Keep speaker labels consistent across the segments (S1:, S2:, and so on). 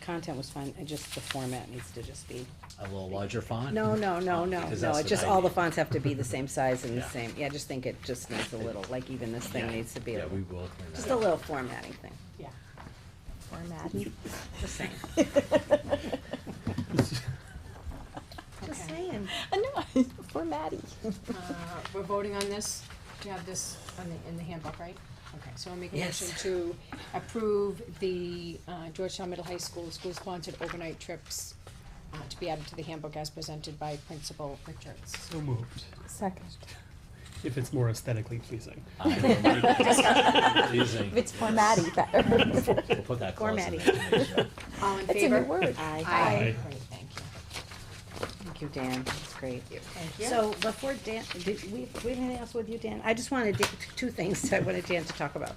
S1: content was fine, it just, the format needs to just be,
S2: A little larger font?
S1: no, no, no, no,
S2: Because
S1: no,
S2: that's
S1: it
S2: what
S1: just,
S2: I
S1: all the
S2: need.
S1: fonts have to be the same size and the
S2: Yeah.
S1: same, yeah, I just think it just needs a little, like even this thing
S2: Yeah.
S1: needs to be, a
S2: Yeah,
S1: little-
S2: we will clean that
S1: just a
S2: up.
S1: little formatting thing,
S3: Yeah. Formatting.
S1: just saying, just
S3: Okay.
S1: saying.
S4: I know, for Maddie.
S3: Uh, We're voting on this, to have this on the, in the handbook, right? Okay, so I'll make a
S1: Yes.
S3: motion to approve the uh, Georgetown Middle High School school-sponsored overnight trips uh, to be added to the handbook as presented by Principal Richards.
S5: So moved.
S4: Second.
S5: If it's more aesthetically pleasing.
S2: I will make it pleasing.
S4: If it's for Maddie, better. Um,
S2: We'll put that clause in
S1: Formatting.
S2: there.
S3: All in favor? Uh,
S4: It's a new word.
S1: Aye.
S3: Aye.
S5: Aye.
S3: Great, thank you.
S1: Thank you, Dan, that's great.
S3: Thank you.
S1: So before Dan, did we, we had anything else with you, Dan? I just wanted, Dan- two things I wanted Dan to talk about.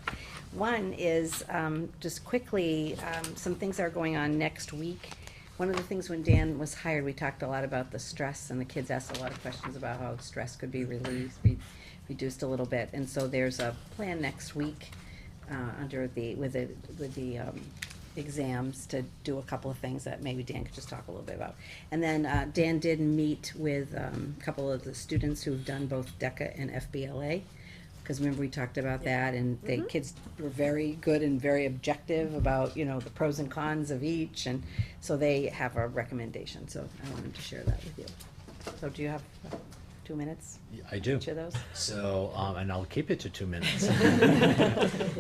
S1: One is, um, just quickly, um, some things that are going on next week. One of the things when Dan was hired, we talked a lot about the stress, and the kids asked a lot of questions about how stress could be released, be reduced a little bit. And so there's a plan next week, uh, under the, with the, with the, um, exams to do a couple of things that maybe Dan could just talk a little bit about. And then, uh, Dan did meet with, um, a couple of the students who've done both DECA and FBLA. Cause remember we talked about that and the
S4: Mm-hmm.
S1: kids were very good and very objective about, you know, the pros and cons of each and so they have a recommendation, so I wanted to share that with you. So do you have uh, two minutes,
S2: I do.
S1: each of those?
S2: So, um, and I'll keep it to two minutes.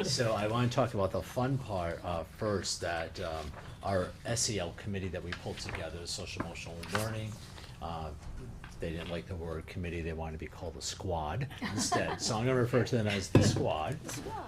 S2: So I wanna talk about the fun part, uh, first, that, um, our SEL committee that we pulled together, social emotional learning, uh, they didn't like the word committee, they wanted to be called the squad instead, so I'm gonna refer to them as the squad.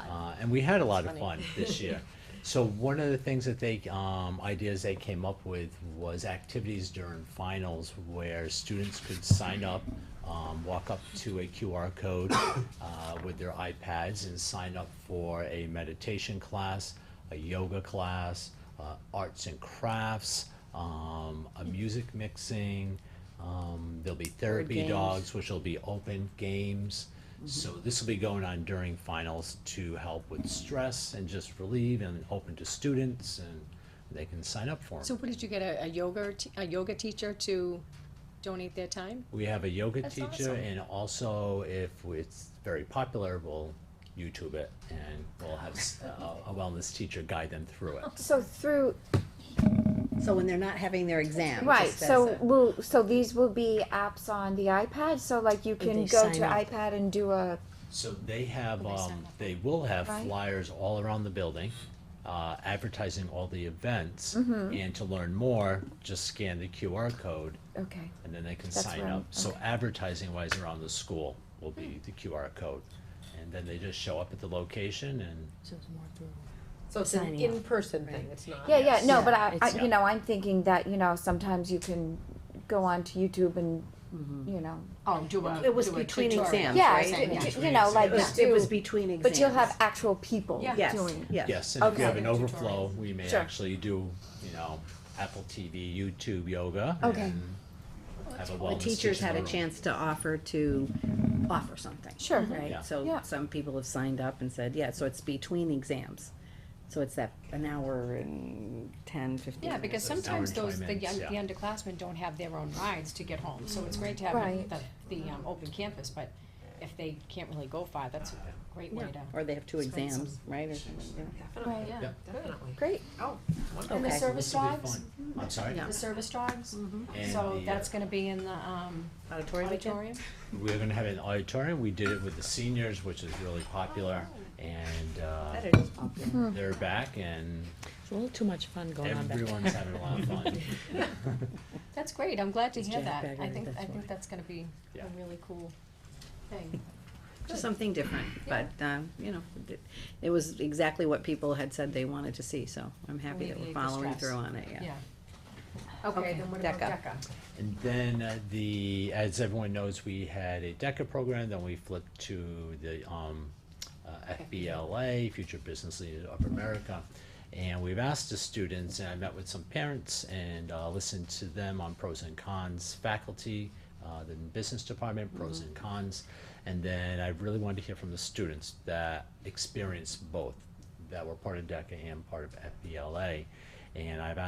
S2: Uh, and we had a lot of fun this year. So one of the things that they, um, ideas they came up with was activities during finals where students could sign up, um, walk up to a QR code, uh, with their iPads and sign up for a meditation class, a yoga class, uh, arts and crafts, um, a music mixing, um, there'll be therapy
S1: games.
S2: dogs, which will be open games.
S3: Mm-hmm.
S2: So this will be going on during finals to help with stress and just relieve and open to students and they can sign up for
S3: So
S2: them.
S3: what, did you get a a yoga, te- a yoga teacher to donate their time?
S2: We have a yoga
S3: That's
S2: teacher
S3: awesome.
S2: and also if it's very popular, we'll YouTube it and we'll have s- uh, a a wellness teacher guide them through it.
S4: So through,
S1: So when they're not having their exam, it
S4: right,
S1: just says
S4: so
S1: that.
S4: will, so these will be apps on the iPad, so like you can
S1: they
S4: go
S1: sign
S4: to
S1: up.
S4: iPad and do a,
S2: So they have,
S3: Will they sign
S2: um,
S3: up?
S2: they will have
S4: Right.
S2: flyers all around the building, uh, advertising all the events.
S4: Mm-hmm.
S2: And to learn more, just scan the QR code
S4: okay,
S2: and then they can
S4: That's
S2: sign
S4: right,
S2: up. So
S4: okay. Mm.
S2: advertising wise around the school will be the QR code. And then they just show up at the location and
S6: So it's an
S1: Signing up,
S6: in-person thing, it's not.
S4: yeah, yeah, no,
S1: Yeah,
S4: but I, I,
S1: it's-
S4: you know, I'm thinking that, you know, sometimes you can go on to YouTube and,
S1: Mm-hmm.
S4: you know,
S3: Oh, do a,
S1: It was
S3: do a
S1: between
S3: tutorial.
S1: exams,
S4: yeah,
S1: right?
S4: d- d- you
S2: Between
S4: know, like
S1: It was, it was between exams.
S4: But you'll have actual people
S3: Yeah.
S1: Yes,
S4: doing it.
S1: yes.
S2: yes, and if
S4: Okay.
S2: you have an
S3: Tutorials.
S2: overflow, we may
S4: Sure.
S2: actually do, you know, Apple TV, YouTube yoga.
S4: Okay.
S2: and Have a
S1: The
S2: wellness
S1: teachers
S2: teacher
S1: had a
S2: room.
S1: chance to offer to offer something.
S4: Sure.
S2: Yeah.
S1: Right, so
S4: Yeah.
S1: some people have signed up and said, yeah, so it's between exams. So it's that an hour and ten, fifteen.
S3: Yeah,
S1: minutes.
S3: because
S2: Those
S3: sometimes
S2: hour and
S3: those, the
S2: twenty
S3: young, the
S2: minutes,
S3: underclassmen don't have their own rides to get home, so it's great to have
S4: Right.
S3: the, the, um, open campus, but if they can't really go far, that's a great way
S1: Yeah,
S3: to.
S1: Or they have two
S3: Spend some-
S1: exams, right, or something, yeah.
S6: Definitely,
S4: Right.
S3: Yeah.
S2: Yeah.
S6: definitely.
S4: Great.
S6: Oh,
S3: And the
S1: Okay.
S3: service
S2: This will be
S3: dogs,
S2: fun. I'm sorry?
S1: Yeah.
S3: the service dogs,
S2: And
S3: so
S2: the, uh,
S3: that's gonna be in the, um,
S1: Auditorium again?
S3: auditorium.
S2: We're gonna have an auditorium, we did it with the seniors, which is really popular, and, uh,
S6: that is popular.
S2: they're back and
S7: It's a little too much fun going on back there.
S2: everyone's having a lot of fun.
S3: That's great, I'm glad to hear
S1: Jack
S3: that, I
S1: Gregory,
S3: think,
S1: that's
S3: I think
S1: why.
S3: that's gonna be
S2: Yeah.
S3: a really cool thing.
S1: Just something different, but, um, you know, it- it was exactly what people had said they wanted to see, so I'm happy that we're
S3: Alleviate the
S1: following
S3: stress.
S1: through on it, yeah.
S3: Yeah. Okay, then what about
S1: DECA.
S3: DECA?
S2: And then uh, the, as everyone knows, we had a DECA program, then we flipped to the um, uh, FBLA, Future Business Leaders of America. And we've asked the students, and I met with some parents and uh, listened to them on pros and cons, faculty, uh, the business department, pros and cons. And then I really wanted to hear from the students that experienced both, that were part of DECA and part of FBLA. And I've asked